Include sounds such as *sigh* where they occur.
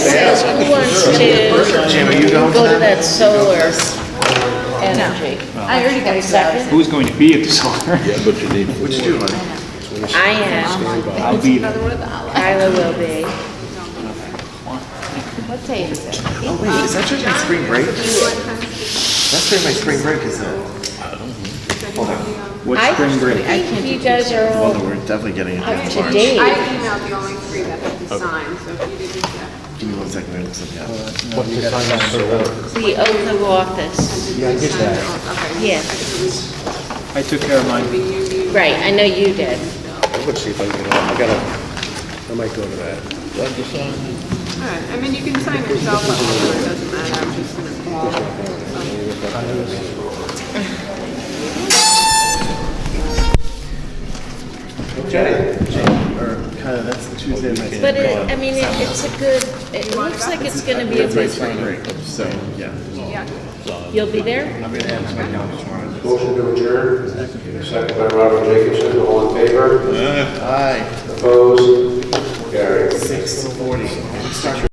who wants to go to that solar energy? I already got Second? Who's going to be at the *laughs* solar? Yeah, but you need four. I am, I'll be there. one of the outlets. Kyla will be. What day is it? Oh wait, is that during my spring break? That's during my spring break, isn't it? Hold on, What's I spring break? think you guys are all we're definitely getting it. up to I date. emailed the only three that had been signed, so if you didn't get Give me one second, I look something up. The oath of office. Yeah, I get that. Okay. Yeah, I took care of mine. right, I know you did. I'm gonna see if I can get on, I gotta, I might go to that. All right, I mean, you can sign yourself up, it doesn't matter, I'm just gonna call. Okay. Or kind of, that's the Tuesday of my spring But break. it, I mean, it- it's a good, it looks like it's gonna be a That's my good spring one. break, so, yeah. Yeah. You'll be there? I'm gonna add to my calendar tomorrow. Motion to adjourn, second by Robert Jacobson, all in favor? Aye, Opposed? Carried. six forty.